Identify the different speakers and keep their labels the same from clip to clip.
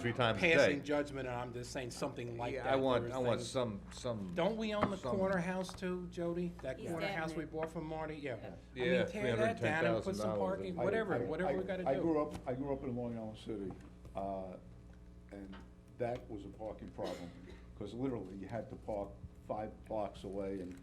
Speaker 1: three times a day.
Speaker 2: Passing judgment, and I'm just saying something like that.
Speaker 1: Yeah, I want,
Speaker 2: where
Speaker 1: I want
Speaker 2: things-
Speaker 1: some, some.
Speaker 2: Don't we own the
Speaker 1: some-
Speaker 2: corner house too, Jody? That
Speaker 3: He's
Speaker 2: corner
Speaker 3: down
Speaker 2: house we
Speaker 3: there.
Speaker 2: bought from Marty, yeah. I mean,
Speaker 1: Yeah,
Speaker 2: tear that down and put some
Speaker 1: $310,000
Speaker 2: parking,
Speaker 1: in-
Speaker 4: I-
Speaker 2: whatever,
Speaker 4: I-
Speaker 2: whatever we
Speaker 4: I-
Speaker 2: gotta
Speaker 4: I grew
Speaker 2: do.
Speaker 4: up, I grew up in Long Island City, uh, and that was a parking problem, because literally, you had to park five blocks away, and,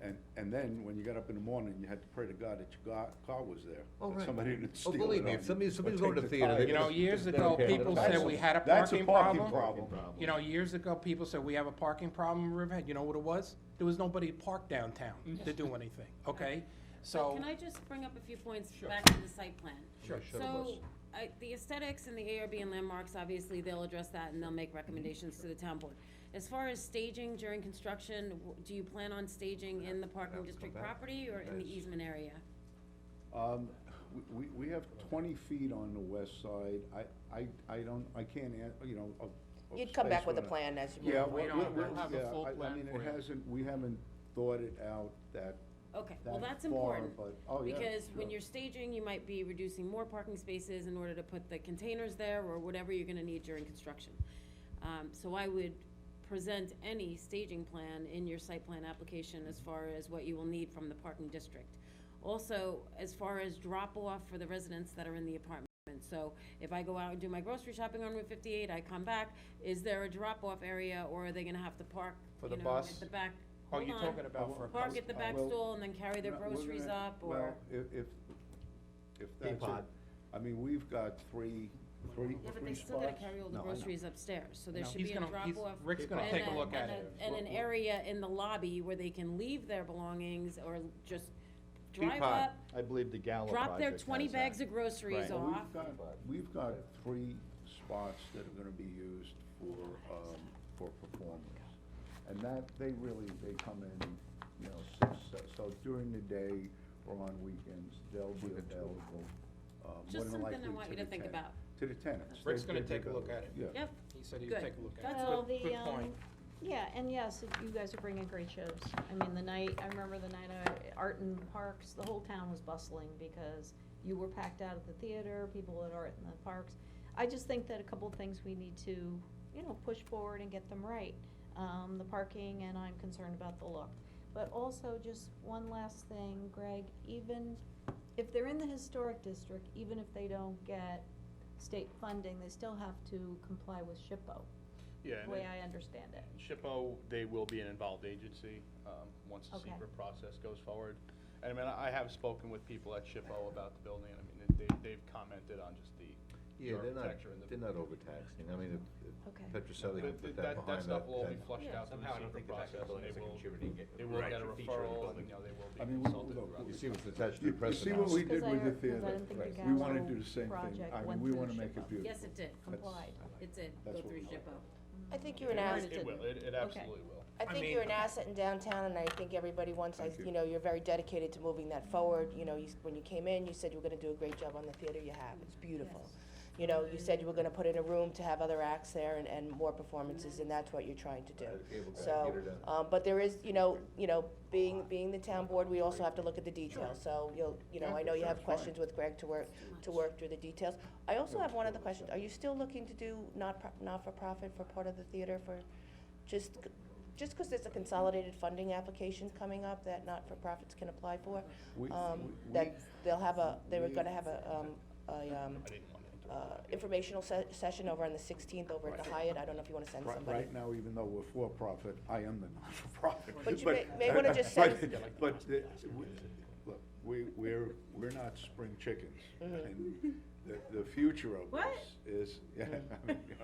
Speaker 4: and, and then, when you got up in the morning, you had to pray to God that your car, car was there.
Speaker 1: Oh,
Speaker 4: that
Speaker 1: right.
Speaker 4: Somebody didn't
Speaker 1: Oh,
Speaker 4: steal it
Speaker 1: believe me,
Speaker 4: on
Speaker 1: if
Speaker 4: you
Speaker 1: somebody-
Speaker 4: or
Speaker 1: somebody's
Speaker 4: take
Speaker 1: going to
Speaker 4: the
Speaker 1: theater,
Speaker 4: tire.
Speaker 1: they
Speaker 2: You know, years ago,
Speaker 1: Okay,
Speaker 2: people
Speaker 1: that's
Speaker 2: said
Speaker 1: a-
Speaker 2: we had a
Speaker 4: That's a
Speaker 2: parking
Speaker 4: parking
Speaker 2: problem.
Speaker 4: problem.
Speaker 2: You know, years ago, people said we have a parking problem in Riverhead. You know what it was? There was nobody parked downtown to do anything, okay?
Speaker 3: But
Speaker 2: So,
Speaker 3: Mm-hmm. Can I just bring up a few points
Speaker 2: Sure.
Speaker 3: back to the site plan?
Speaker 2: Sure.
Speaker 1: Shut up,
Speaker 3: So, I, the aesthetics and the ARB and landmarks, obviously, they'll address that and they'll make recommendations to the town board. As far as staging during construction, w- do you plan on staging in the parking district
Speaker 1: back.
Speaker 3: property or in the easement area?
Speaker 4: Um, we- we, we have twenty feet on the west side, I, I, I don't, I can't, an- you know, of. of
Speaker 5: You'd come back
Speaker 4: space
Speaker 5: with a
Speaker 4: on it.
Speaker 5: plan as you
Speaker 4: Yeah,
Speaker 5: move.
Speaker 4: we,
Speaker 5: along.
Speaker 4: we,
Speaker 6: don't- we'll
Speaker 4: we-
Speaker 6: have a
Speaker 4: yeah,
Speaker 6: full
Speaker 4: I- I
Speaker 6: plan
Speaker 4: mean,
Speaker 6: for
Speaker 4: it
Speaker 6: you.
Speaker 4: hasn't, we haven't thought it out that,
Speaker 3: Okay, well,
Speaker 4: That
Speaker 3: that's
Speaker 4: far,
Speaker 3: important.
Speaker 4: but- oh, yeah,
Speaker 3: Because when
Speaker 4: sure.
Speaker 3: you're staging, you might be reducing more parking spaces in order to put the containers there or whatever you're gonna need during construction. Um, so I would present any staging plan in your site plan application as far as what you will need from the parking district. Also, as far as drop-off for the residents that are in the apartment, so if I go out and do my grocery shopping on Route fifty-eight, I come back, is there a drop-off area or are they gonna have to park,
Speaker 2: For the
Speaker 3: you know,
Speaker 2: bus?
Speaker 3: at the back?
Speaker 2: oh,
Speaker 3: Hold
Speaker 2: you're
Speaker 3: on.
Speaker 2: talking about for a
Speaker 3: Park at the back
Speaker 4: Uh, Well,
Speaker 3: stall and then carry their
Speaker 4: No, we're
Speaker 3: groceries
Speaker 4: gonna-
Speaker 3: up,
Speaker 4: Well,
Speaker 3: or,
Speaker 4: if, if, if that's it,
Speaker 1: Peapod.
Speaker 4: I mean, we've got three, three,
Speaker 3: yeah, but
Speaker 4: three
Speaker 3: they still gotta
Speaker 4: spots.
Speaker 3: carry all the
Speaker 4: No, I know.
Speaker 3: groceries upstairs, so
Speaker 2: You
Speaker 3: there
Speaker 2: know,
Speaker 3: should
Speaker 2: he's
Speaker 3: be a
Speaker 2: gonna- he's-
Speaker 3: drop-off.
Speaker 2: Rick's gonna
Speaker 3: and
Speaker 2: take a look at
Speaker 3: and
Speaker 2: it.
Speaker 3: a- And an area in the lobby where they can leave their belongings, or just drive
Speaker 1: Peapod,
Speaker 3: up,
Speaker 7: I believe the Gallo
Speaker 3: drop their
Speaker 7: project
Speaker 3: twenty
Speaker 7: has that.
Speaker 3: bags of groceries
Speaker 7: Right.
Speaker 4: Well,
Speaker 3: off.
Speaker 4: We've got, we've got three spots that are gonna be used for, um, for performers. And that, they really, they come in, you know, six, se- so during the day or on weekends, they'll be available, uh, more
Speaker 3: Just
Speaker 4: than
Speaker 3: something
Speaker 4: likely
Speaker 3: I want you
Speaker 4: the
Speaker 3: to think
Speaker 4: tenant-
Speaker 3: about.
Speaker 4: To the tenants.
Speaker 2: Rick's
Speaker 4: They-
Speaker 2: gonna
Speaker 4: they'll be
Speaker 2: take a look at
Speaker 4: available. Yeah.
Speaker 3: Yep,
Speaker 2: he said he'd
Speaker 3: Good.
Speaker 2: take a look at it.
Speaker 3: That's
Speaker 6: Well,
Speaker 3: good.
Speaker 6: the,
Speaker 2: Good point.
Speaker 6: um, yeah, and yes, you guys are bringing great shows. I mean, the night, I remember the night of Art in Parks, the whole town was bustling because you were packed out at the theater, people at Art in the Parks. I just think that a couple of things we need to, you know, push forward and get them right. Um, the parking, and I'm concerned about the look. But also, just one last thing, Greg, even if they're in the historic district, even if they don't get state funding, they still have to comply with SHPO,
Speaker 8: Yeah,
Speaker 6: the
Speaker 8: and
Speaker 6: way
Speaker 8: it-
Speaker 6: I understand it.
Speaker 8: SHPO, they will be an involved agency, um, once the
Speaker 6: Okay.
Speaker 8: secret process goes forward. And I mean, I I have spoken with people at SHPO about the building, and I mean, they, they've commented on just the the
Speaker 1: Yeah, they're not,
Speaker 8: architecture and the.
Speaker 1: they're not overtaxing, I mean,
Speaker 6: Okay.
Speaker 1: if, if Petroselli can
Speaker 8: But
Speaker 1: put
Speaker 8: th-
Speaker 1: that behind
Speaker 8: That, that
Speaker 1: that,
Speaker 8: stuff will all be
Speaker 1: then-
Speaker 8: flushed out through the secret process, and they will,
Speaker 1: Right. Feature in
Speaker 8: they will get a
Speaker 1: the
Speaker 8: referral,
Speaker 1: building.
Speaker 8: and, you know, they will
Speaker 4: I
Speaker 8: be
Speaker 4: mean, we-
Speaker 8: consulted
Speaker 4: look,
Speaker 8: throughout.
Speaker 1: You
Speaker 8: the
Speaker 1: see what's
Speaker 8: process.
Speaker 1: attached to
Speaker 4: You
Speaker 1: the
Speaker 4: you
Speaker 1: press
Speaker 4: see what
Speaker 1: announcement.
Speaker 4: we did
Speaker 6: Because
Speaker 4: with
Speaker 6: I
Speaker 4: the theater?
Speaker 6: heard- 'cause I didn't think the
Speaker 4: Right. We
Speaker 6: Gallo
Speaker 4: wanna do the same thing,
Speaker 6: project
Speaker 4: I mean,
Speaker 6: went
Speaker 4: we
Speaker 6: through
Speaker 4: wanna make
Speaker 6: SHPO.
Speaker 4: it beautiful.
Speaker 3: yes, it did,
Speaker 6: Complied.
Speaker 3: it did,
Speaker 4: That's
Speaker 3: go
Speaker 4: what
Speaker 3: through
Speaker 4: we like.
Speaker 3: SHPO.
Speaker 5: I think you're an asset,
Speaker 8: It will, it, it absolutely will.
Speaker 5: I
Speaker 2: I
Speaker 5: think
Speaker 2: mean-
Speaker 5: you're an asset in downtown, and I think everybody wants, I,
Speaker 4: Thank you.
Speaker 5: you know, you're very dedicated to moving that forward. You know, you, s- when you came in, you said you were gonna do a great job on the theater you have, it's beautiful. You know, you said you were gonna put in a room to have other acts there and, and more performances, and that's what you're trying to do. So, um, but there is, you know, you know, being, being the town board, we also have to look at the details, so you'll, you know, I know you
Speaker 4: Yeah,
Speaker 5: have
Speaker 4: sure,
Speaker 5: questions with Greg to work, to work through the details. I also have one other question, are you still looking to do not, pro- not-for-profit for part of the theater for, just, c- just because there's a consolidated funding application coming up that not-for-profits can apply for?
Speaker 4: We-
Speaker 5: Um,
Speaker 4: we-
Speaker 5: that they'll have a, they were
Speaker 4: we-
Speaker 5: gonna have a, um, a, um,
Speaker 8: I didn't want to interrupt.
Speaker 5: uh, informational se- session over on the sixteenth over at the Hyatt, I don't know if you wanna send
Speaker 4: Right-
Speaker 5: somebody.
Speaker 4: Right now, even though we're for-profit, I am the non-for-profit.
Speaker 5: But you may- may wanna just send-
Speaker 4: but- But, the- we- look, we, we're, we're not spring chickens.
Speaker 5: Mm-hmm.
Speaker 4: And the, the future of
Speaker 3: What?
Speaker 4: this is, yeah, I mean, you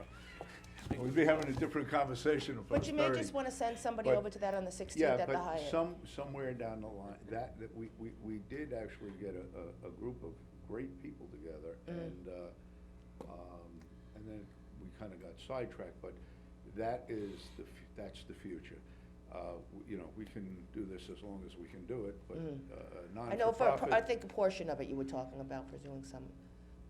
Speaker 4: know, we'd be having a different conversation if I
Speaker 5: Mm-hmm. But
Speaker 4: was
Speaker 5: you may
Speaker 4: thirty.
Speaker 5: just wanna send somebody
Speaker 4: But-
Speaker 5: over to that on the sixteenth
Speaker 4: Yeah,
Speaker 5: at the Hyatt.
Speaker 4: but some, somewhere down the line, that, that we, we, we did actually get a, a, a group of great people together
Speaker 5: Mm.
Speaker 4: and, uh, um, and then we kinda got sidetracked, but that is the, fu- that's the future. Uh, w- you know, we can do this as long as we can do it, but, uh,
Speaker 5: Mm. I know for, a por- I
Speaker 4: non-for-profit,
Speaker 5: think a portion of it you were talking about for doing some,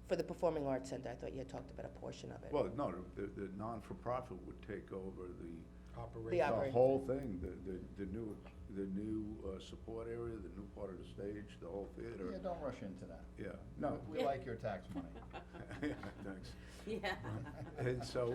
Speaker 5: for the Performing Arts Center, I thought you had talked about a portion of it.
Speaker 4: well, no, the, the non-for-profit would take over the,
Speaker 2: The
Speaker 5: operation.
Speaker 2: op-
Speaker 4: The
Speaker 2: operating
Speaker 4: whole thing, the, the, the new, the new, uh, support area, the new part of the stage, the whole
Speaker 1: Yeah,
Speaker 4: theater,
Speaker 1: don't rush into that.
Speaker 4: yeah, no.
Speaker 1: We like your tax money.
Speaker 4: Thanks.
Speaker 3: Yeah.
Speaker 4: And so,